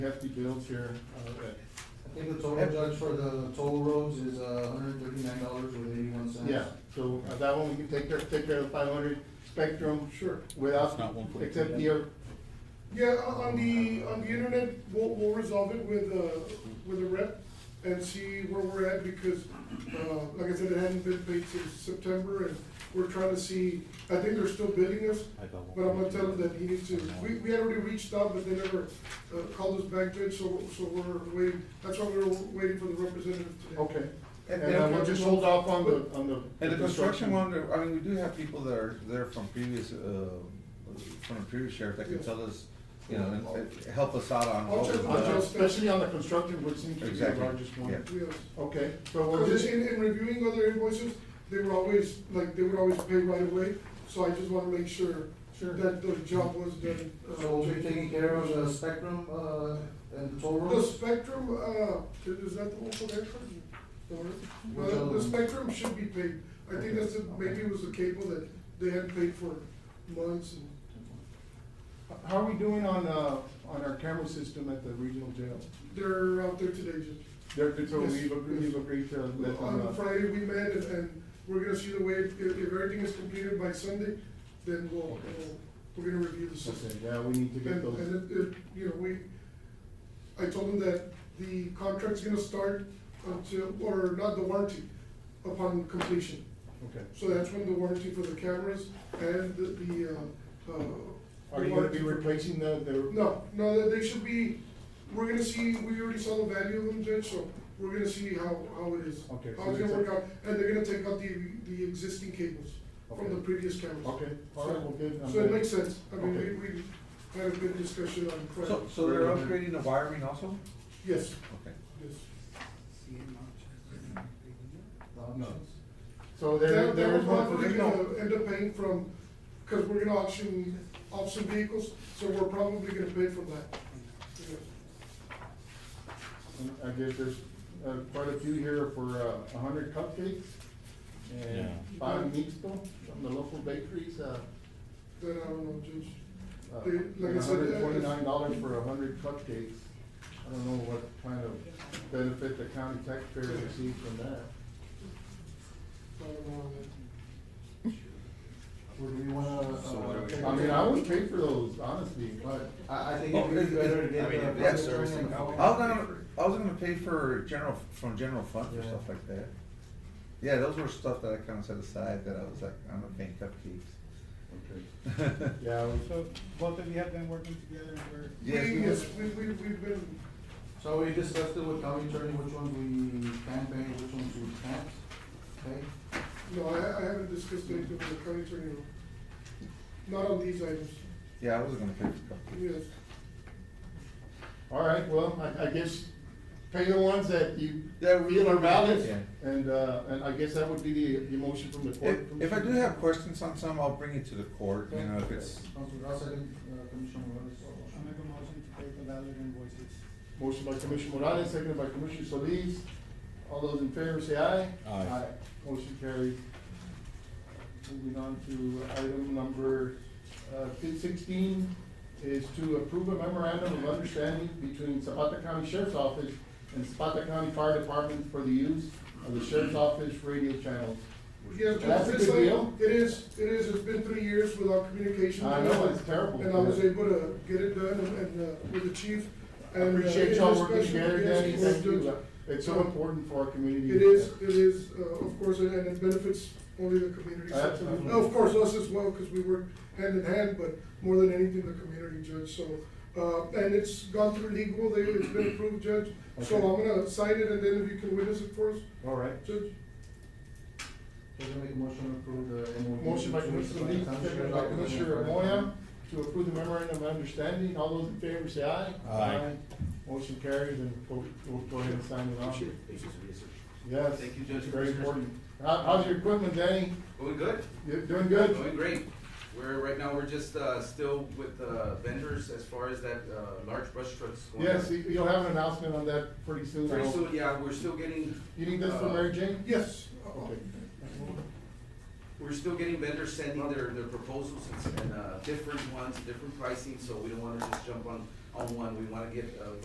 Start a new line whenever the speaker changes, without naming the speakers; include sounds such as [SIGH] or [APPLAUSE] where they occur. hefty bills here. Uh,
I think the total judge for the toll roads is uh hundred and thirty-nine dollars with eighty-one cents.
Yeah, so uh, that one, we can take care, take care of five hundred spectrum. Sure. Without,
It's not 1.2.
except the, uh,
Yeah, on on the, on the internet, we'll, we'll resolve it with, uh, with a rep and see where we're at because, uh, like I said, it hadn't been paid since September and we're trying to see, I think they're still billing us, but I'm gonna tell him that he needs to, we, we had already reached out, but they never, uh, called us back yet, so, so we're waiting, that's why we were waiting for the representative today.
okay.
And-
And
and-
uh, we'll just hold off on the, on the.
And the construction one, there- I mean, we do have people that are there from previous, uh, from the previous sheriff that can
Yeah.
tell us, you know, and, and help us out on.
I'll
all
check
of
with
the-
Uh,
Joe.
Especially on the construction, which seems to be the
Exactly,
largest one.
yeah.
Yes.
Okay, so we'll
Because
just,
in, in reviewing other invoices, they were always, like, they would always pay right away, so I just wanna make sure
Sure.
that the job was done. uh,
So we'll be taking care of the spectrum, uh, and the toll
The
roads.
spectrum, uh, is that the one for the airport?
Which
The,
other
the
one?
spectrum should be paid, I think that's, it. maybe it was the cable that they had paid for months and.
how are we doing on, uh, on our camera system at the regional jail?
They're out there today, Judge.
There, so
Yes,
we've agreed,
yes.
we've agreed to let them,
On
uh,
Friday, we met and, and we're gonna see the way, if, if everything is completed by Sunday, then we'll, we'll- we're gonna review the system.
okay, yeah, we need to get
And,
those.
and it, it, you know, we, I told them that the contract's gonna start until, or not the warranty, upon completion.
Okay.
So that's when the warranty for the cameras and the, the, uh, uh.
Are
the
you gonna
warranty
be
for-
replacing the, the?
No, no, they- they should be, we're gonna see, we already saw the value of them, Judge, so we're gonna see how, how it is.
Okay, so
How it's
it's
gonna
a-
work out, and they're gonna take out the, the existing cables from
Okay.
the previous cameras.
Okay, all right, well, good. I'm
So it
glad.
makes sense, I mean,
Okay.
we, we had a good discussion on
So,
Friday.
so they're upgrading the wiring also?
Yes,
Okay.
yes.
So there,
That, that
there
we're
is one for
probably
regional.
gonna end up paying from, cause we're gonna auction, auction vehicles, so we're probably gonna pay from that. Yes.
And I guess there's uh, quite a few here for uh, a hundred cupcakes and
Yeah.
five mixto from the local bakeries. uh,
Then I don't know, Judge.
uh,
They- like I said,
hundred
uh,
and twenty-nine dollars for a hundred cupcakes. I don't know what kind of benefit the county taxpayer received from that.
I don't know on that.
Or do we wanna,
So what are we-
uh?
I mean, I would pay for those, honestly, but
I, I think
Oh,
it'd be
it-
better to
it-
get.
I mean,
the
if that's
project
servicing,
done
I was
and-
gonna, I was gonna pay for general, from general fund or
Yeah.
stuff like that. Yeah, those were stuff that I kinda set aside that I was like, I'm not paying cupcakes. [LAUGHS]
yeah, we-
So both of you have been working together and we're.
Yes,
We-
we
Yes,
would.
we, we, we've been,
So we discussed it with county attorney, which ones we can pay, which ones we can't pay.
no, I, I haven't discussed anything with the county attorney. Not on these items,
Yeah, I wasn't gonna pay for cupcakes.
yes.
all right, well, I, I guess pay the ones that you
Yeah, we-
feel are valid.
Yeah.
And, uh, and I guess that would be the, the motion from the court.
If, if I do
Commissioner.
have questions on some, I'll bring it to the court, you know, if it's,
Councilor Garza, uh, Commissioner Morales.
I make a motion to pay the valid invoices.
Motion by Commissioner Morales, seconded by Commissioner Solis. All those in favor say aye.
Aye.
Motion carried. Moving on to item number uh, fif- sixteen is to approve a memorandum of understanding between Zapata County Sheriff's Office and Zapata County Fire Department for the use of the Sheriff's Office radio channels.
Yeah, Judge,
That's a
it's
good
like-
deal.
It is, it is, it's been three years without communication.
I know, it's terrible.
And I was able to get it done and, and, uh, with the chief.
I
and, uh,
Appreciate
in
y'all working
discussion,
together,
yes,
Danny,
of course,
thank you.
Judge.
It's so important for our community.
It is, it is, uh, of course, and it benefits only the community.
Absolutely.
Of course, us as well, because we work hand in hand, but more than anything, the community judge, so. Uh, and it's gone through legal, they, it's been approved, Judge, so
Okay.
I'm gonna sign it, and then if you can witness it for us,
All right.
Judge.
So we make a motion to approve the MOU.
Motion by
between
Commissioner Solis,
Zapata County
seconded
Sheriff's
by
Office and
Commissioner
Fire
Moya
Department.
to approve the memorandum of understanding. All those in favor say aye.
Aye.
Motion carries and we'll, we'll go ahead and sign it off.
Thank you for the research.
Yes.
Thank you, Judge.
Very important. How, how's your equipment, Danny?
Going good?
You doing good?
Going great. We're, right now, we're just, uh, still with, uh, vendors as far as that, uh, large brush trucks going.
Yes, you- you'll have an announcement on that pretty soon. I
Pretty
hope.
soon, yeah, we're still getting.
You need this for
uh,
Mary Jane?
Yes.
Okay.
We're still getting vendors sending their, their proposals and, and, uh, different ones, different pricing, so we don't wanna just jump on, on one. We wanna get, uh,